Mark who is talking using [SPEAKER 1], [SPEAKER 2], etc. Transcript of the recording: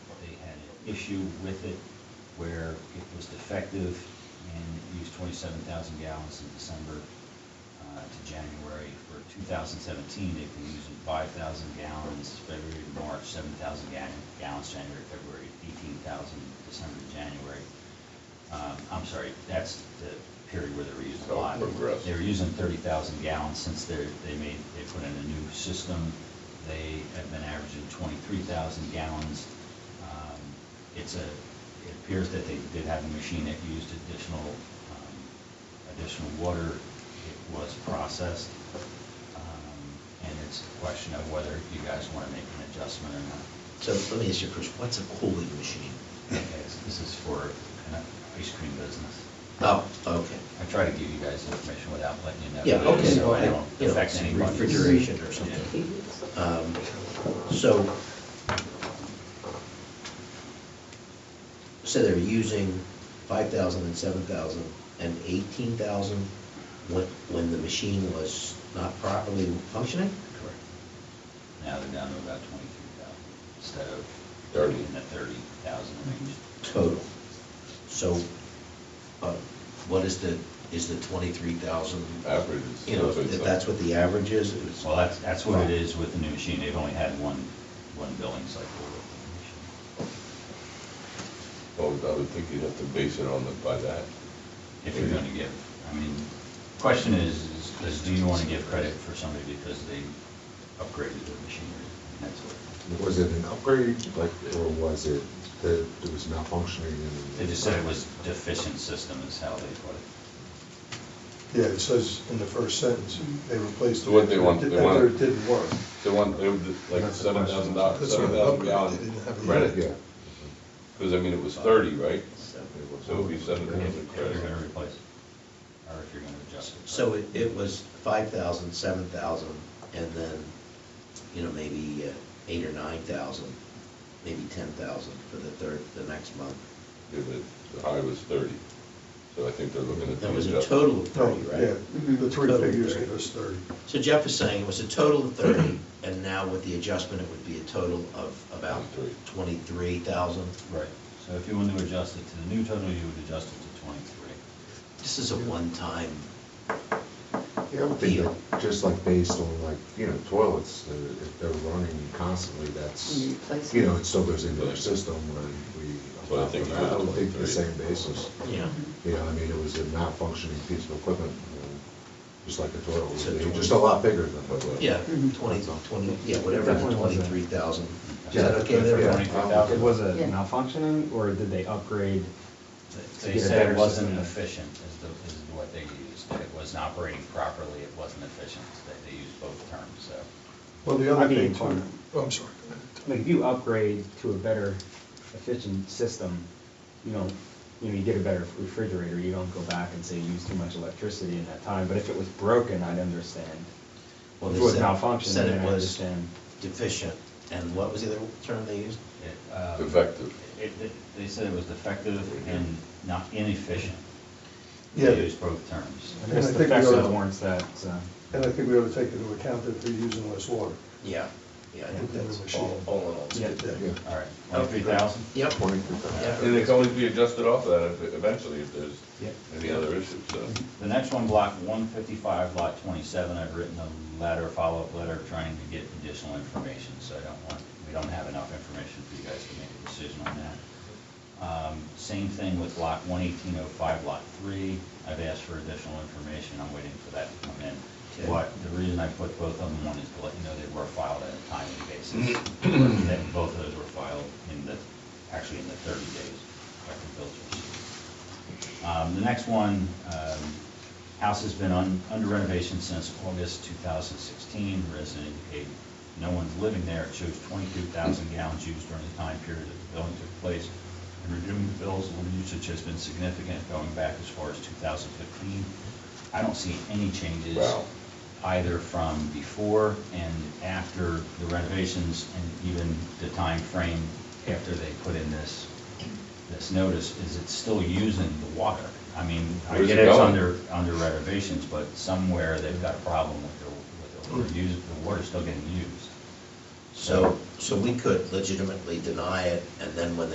[SPEAKER 1] issue with it where it was defective and it used 27,000 gallons in December uh, to January. For 2017, they've been using 5,000 gallons February to March, 7,000 ga- gallons January, to February, 18,000 December to January. Um, I'm sorry, that's the period where they were using a
[SPEAKER 2] Oh,
[SPEAKER 1] lot.
[SPEAKER 2] progress.
[SPEAKER 1] They were using 30,000 gallons since they're, they made, they put in a new system. They have been averaging 23,000 gallons. Um, It's a, it appears that they did have a machine that used additional, um, additional water. It was processed. Um, And it's a question of whether you guys want to make an adjustment or not.
[SPEAKER 3] So let me ask you first, what's a cooling machine?
[SPEAKER 1] Okay, so This is for an ice cream business.
[SPEAKER 3] Oh, okay.
[SPEAKER 1] I try to give you guys information without letting you know.
[SPEAKER 3] Yeah,
[SPEAKER 1] what it is,
[SPEAKER 3] okay,
[SPEAKER 1] So I
[SPEAKER 3] well,
[SPEAKER 1] don't
[SPEAKER 3] you know,
[SPEAKER 1] affect anybody.
[SPEAKER 3] refrigeration
[SPEAKER 1] Yeah.
[SPEAKER 3] or something. Um, So, so they're using 5,000 and 7,000 and 18,000 when, when the machine was not properly functioning?
[SPEAKER 1] Correct. Now they're down to about twenty-three thousand instead of
[SPEAKER 2] Thirty.
[SPEAKER 1] in the thirty thousand range.
[SPEAKER 3] Total. So uh, what is the, is the 23,000?
[SPEAKER 2] Average is-
[SPEAKER 3] You know, if that's what the average is? it's-
[SPEAKER 1] Well, that's, that's what it is with the new machine. They've only had one, one billing cycle with
[SPEAKER 2] Well, I would think you'd have to base it on the, by that.
[SPEAKER 1] the new machine. If you're gonna give, I mean, question is, is- is do you wanna give credit for somebody because they upgraded their machinery? And that's what,
[SPEAKER 4] Was it an upgrade, like, or was it that it was malfunctioning and?
[SPEAKER 1] they just said it was deficient system is how they put it.
[SPEAKER 5] Yeah, it says in the first sentence, they replaced.
[SPEAKER 2] So what they want- they want-
[SPEAKER 5] After it didn't work.
[SPEAKER 2] They want, they would, like,
[SPEAKER 4] That's the
[SPEAKER 2] seven
[SPEAKER 4] question.
[SPEAKER 2] thousand dollars,
[SPEAKER 5] That's what
[SPEAKER 2] seven
[SPEAKER 5] an
[SPEAKER 2] thousand
[SPEAKER 5] upgrade,
[SPEAKER 2] gallon
[SPEAKER 5] they didn't have a-
[SPEAKER 2] credit.
[SPEAKER 4] Yeah.
[SPEAKER 2] Because, I mean, it was thirty, right? So it would be seven thousand
[SPEAKER 1] If you're gonna
[SPEAKER 2] credit.
[SPEAKER 1] replace it, or if you're gonna adjust it.
[SPEAKER 3] So it, it was five thousand, seven thousand, and then, you know, maybe uh, eight or nine thousand, maybe ten thousand for the third, the next month.
[SPEAKER 2] Yeah, but The high was thirty, so I think they're looking at. the
[SPEAKER 3] That was a
[SPEAKER 2] adjustment.
[SPEAKER 3] total of
[SPEAKER 5] No,
[SPEAKER 3] thirty,
[SPEAKER 5] yeah,
[SPEAKER 3] right?
[SPEAKER 5] the three
[SPEAKER 3] Total
[SPEAKER 5] figures
[SPEAKER 3] 30.
[SPEAKER 5] give us thirty.
[SPEAKER 3] So Jeff is saying it was a total of thirty, and now with the adjustment, it would be a total of about twenty-three thousand.
[SPEAKER 1] Right, so if you want to adjust it to the new total, you would adjust it to twenty-three.
[SPEAKER 3] This is a one-time,
[SPEAKER 4] Yeah, I would think that, just like based on like, you know, toilets, uh, if they're running constantly, that's,
[SPEAKER 6] You replace
[SPEAKER 4] you know,
[SPEAKER 6] it.
[SPEAKER 4] it still goes into their system when we.
[SPEAKER 2] Well, I think you
[SPEAKER 4] I would think the
[SPEAKER 2] would-
[SPEAKER 4] same basis.
[SPEAKER 3] you know,
[SPEAKER 6] Mm-hmm.
[SPEAKER 4] You know, I mean, it was a malfunctioning piece of equipment, you know, just like a toilet
[SPEAKER 3] So
[SPEAKER 4] would be,
[SPEAKER 3] twenty-
[SPEAKER 4] just a lot bigger than a toilet.
[SPEAKER 3] yeah,
[SPEAKER 6] Mhm.
[SPEAKER 3] twenty, twenty, yeah, whatever,
[SPEAKER 7] Definitely wasn't.
[SPEAKER 3] twenty-three thousand. Is
[SPEAKER 4] Yeah,
[SPEAKER 3] that okay there?
[SPEAKER 4] yeah,
[SPEAKER 3] Brian?
[SPEAKER 4] I'll-
[SPEAKER 7] It was a
[SPEAKER 6] Yeah.
[SPEAKER 7] malfunctioning, or did they upgrade? to
[SPEAKER 1] They
[SPEAKER 7] get a
[SPEAKER 1] said it
[SPEAKER 7] better
[SPEAKER 1] wasn't
[SPEAKER 7] system?
[SPEAKER 1] efficient is the, is what they used, that it wasn't operating properly, it wasn't efficient, that they used both terms, so.
[SPEAKER 5] Well, the other
[SPEAKER 7] I
[SPEAKER 5] thing
[SPEAKER 7] mean,
[SPEAKER 5] too, oh, I'm sorry. go ahead.
[SPEAKER 7] Like, if you upgrade to a better efficient system, you know, you know, you get a better refrigerator, you don't go back and say you used too much electricity in that time, but if it was broken, I'd understand.
[SPEAKER 3] Well,
[SPEAKER 7] If
[SPEAKER 3] they
[SPEAKER 7] it was
[SPEAKER 3] said-
[SPEAKER 7] malfunctioning,
[SPEAKER 3] said it
[SPEAKER 7] then I
[SPEAKER 3] was-
[SPEAKER 7] understand.
[SPEAKER 3] deficient, and what was the other term they used?
[SPEAKER 1] it, um,
[SPEAKER 2] Defective.
[SPEAKER 1] It, it- they said it was defective and not inefficient.
[SPEAKER 5] Yeah.
[SPEAKER 1] They used both terms.
[SPEAKER 7] I
[SPEAKER 5] And I
[SPEAKER 7] guess the
[SPEAKER 5] think we
[SPEAKER 7] fact
[SPEAKER 5] ought
[SPEAKER 7] that
[SPEAKER 5] to-
[SPEAKER 7] warrants that, so.
[SPEAKER 5] And I think we ought to take into account that they're using less water.
[SPEAKER 3] Yeah, yeah, I think
[SPEAKER 5] Yeah.
[SPEAKER 3] that's all, all in all. it's
[SPEAKER 7] Yeah.
[SPEAKER 3] good.
[SPEAKER 4] Yeah.
[SPEAKER 1] All right, twenty-three thousand?
[SPEAKER 3] Yep.
[SPEAKER 4] Twenty-three thousand.
[SPEAKER 3] Yeah.
[SPEAKER 2] And it can always be adjusted off of that eventually if there's
[SPEAKER 7] Yep.
[SPEAKER 2] any other issues, so.
[SPEAKER 1] The next one, block one fifty-five, lot twenty-seven, I've written a letter, follow-up letter, trying to get additional information, so I don't want, we don't have enough information for you guys to make a decision on that. Um, Same thing with block one eighteen oh five, lot three, I've asked for additional information, I'm waiting for that to come in.
[SPEAKER 3] Okay.
[SPEAKER 1] What, the reason I put both of them on is to let you know they were filed at a timely basis, that both of those were filed in the, actually in the thirty days, effective bills were received. Um, The next one, um, house has been un- under renovation since August 2016. Resident indicated no one's living there. It shows 22,000 gallons used during the time period that the building took place. In reviewing the bills, water usage has been significant going back as far as 2015. I don't see any changes
[SPEAKER 2] Wow.
[SPEAKER 1] either from before and after the renovations and even the time frame after they put in this, this notice, is it's still using the water. I mean, I
[SPEAKER 2] Where's
[SPEAKER 1] get
[SPEAKER 2] it
[SPEAKER 1] it's
[SPEAKER 2] going?
[SPEAKER 1] under, under renovations, but somewhere they've got a problem with their, with their water use, the water's still getting used.
[SPEAKER 3] So, so we could legitimately deny it, and then when they